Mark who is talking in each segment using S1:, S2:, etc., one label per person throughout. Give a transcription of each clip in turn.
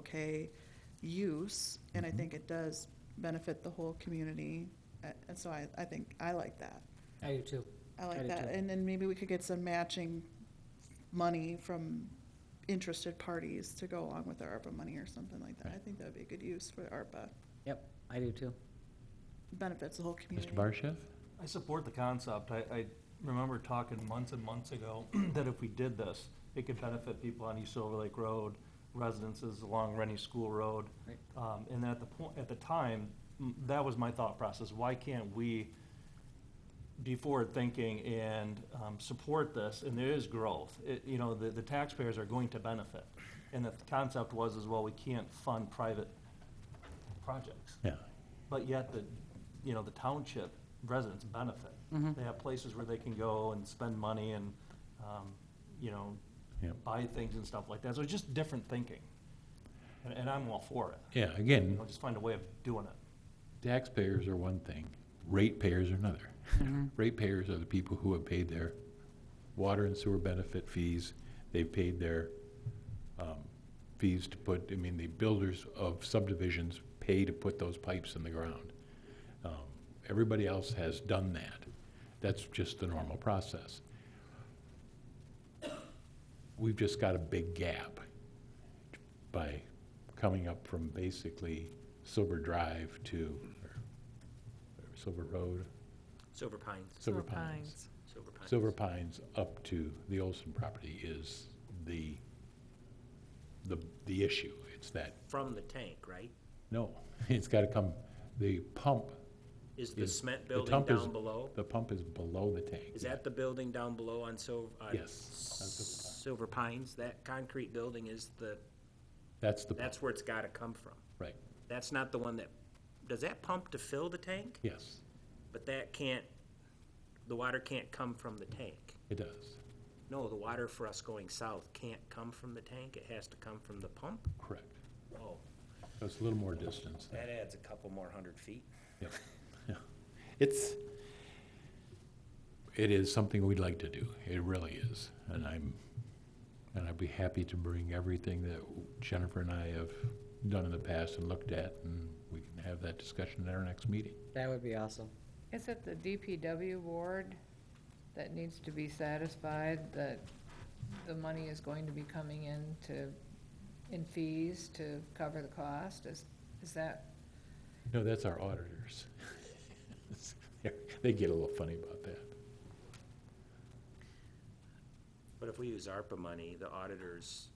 S1: okay use, and I think it does benefit the whole community. Uh, And so I, I think, I like that.
S2: I do too.
S1: I
S2: I
S1: like
S2: do
S1: that.
S2: too.
S1: And then maybe we could get some matching money from interested parties to go along with our ARPA money or something like that. I think that would be a good use for ARPA.
S2: Yep, I do too.
S1: Benefits the whole community.
S3: Mr. Barsha?
S4: I support the concept. I, I remember talking months and months ago that if we did this, it could benefit people on East Silver Lake Road, residences along Rennie School Road.
S2: Right.
S4: Um, and at the point, at the time, m- that was my thought process. Why can't we be forward thinking and, um, support this? And there is growth. It, you know, the, the taxpayers are going to benefit. And the concept was as well, we can't fund private projects.
S3: Yeah.
S4: But yet the, you know, the township residents benefit. They have places where they can go and spend money and, um, you know,
S3: Yep.
S4: buy things and stuff like that. So it's just different thinking. And, and I'm all for it.
S3: Yeah,
S4: You
S3: again,
S4: know, just find a way of doing it.
S3: taxpayers are one thing, ratepayers are another. Ratepayers are the people who have paid their water and sewer benefit fees, they've paid their um, fees to put, I mean, the builders of subdivisions pay to put those pipes in the ground. Um, Everybody else has done that. That's just the normal process. We've just got a big gap by coming up from basically Silver Drive to or- or Silver Road,
S5: Silver Pines,
S3: Silver Pines.
S5: Silver Pines.
S3: Silver Pines up to the Olson property is the, the, the issue. It's that,
S5: From the tank, right?
S3: no, it's gotta come, the pump.
S5: Is the
S3: is-
S5: cement
S3: the
S5: building
S3: pump is-
S5: down below?
S3: The pump is below the tank.
S5: Is that the building down below on Silver?
S3: Yes.
S5: Silver Pines, that concrete building is the,
S3: That's the, pump,
S5: that's where it's gotta come from.
S3: right,
S5: That's not the one that, does that pump to fill the tank?
S3: yes,
S5: But that can't, the water can't come from the tank.
S3: it does,
S5: No, the water for us going south can't come from the tank, it has to come from the pump?
S3: correct.
S5: Oh,
S3: So It's a little more distance.
S5: that adds a couple more hundred feet.
S3: Yep. Yeah. It's, it is something we'd like to do. It really is. And I'm, and I'd be happy to bring everything that Jennifer and I have done in the past and looked at, and we can have that discussion at our next meeting.
S2: That would be awesome.
S6: Is it the DPW ward that needs to be satisfied that the money is going to be coming in to, in fees to cover the cost? Is, is that,
S3: No, that's our auditors. They get a little funny about that.
S5: But if we use ARPA money, the auditors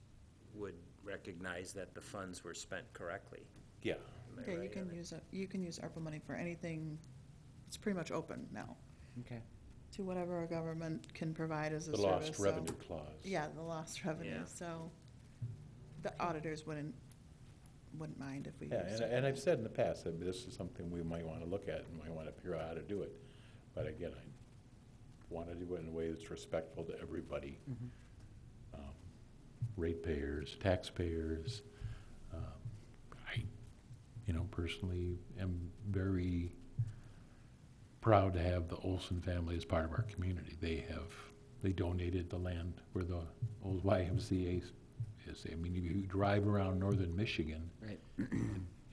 S5: would recognize that the funds were spent correctly.
S3: Yeah.
S5: Am I
S1: Yeah, you
S5: right on
S1: can
S5: that?
S1: use, it- you can use ARPA money for anything, it's pretty much open now,
S2: Okay.
S1: to whatever our government can provide as a
S3: The
S1: service.
S3: lost
S1: so-
S3: revenue clause.
S1: Yeah, the lost revenue,
S5: Yeah.
S1: so the auditors wouldn't, wouldn't mind if we
S3: Yeah,
S1: used
S3: and, I-
S1: it.
S3: and I've said in the past that this is something we might want to look at and might want to figure out how to do it. But again, I want to do it in a way that's respectful to everybody.
S2: Mm-hmm.
S3: Um, Ratepayers, taxpayers. um, I, you know, personally am very proud to have the Olson family as part of our community. They have, they donated the land where the old YMCA is. I mean, if you drive around northern Michigan,
S2: Right.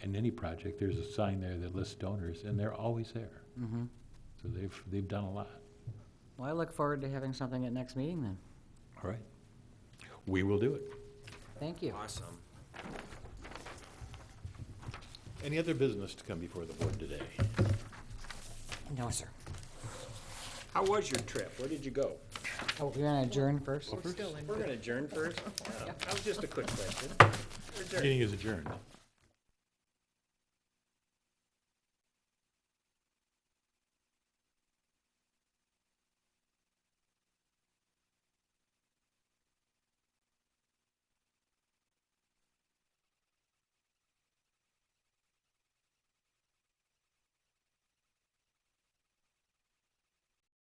S3: in any project, there's a sign there that lists donors, and they're always there.
S2: Mm-hmm.
S3: So they've, they've done a lot.
S2: Well, I look forward to having something at next meeting then.
S3: All right. We will do it.
S2: Thank you.
S5: Awesome.
S3: Any other business to come before the board today?
S2: No, sir.
S5: How was your trip? Where did you go?
S2: Oh, you're gonna adjourn first?
S6: we're still in
S5: We're gonna adjourn first? That was just a quick question. We're adjourned.
S3: Meeting is adjourned.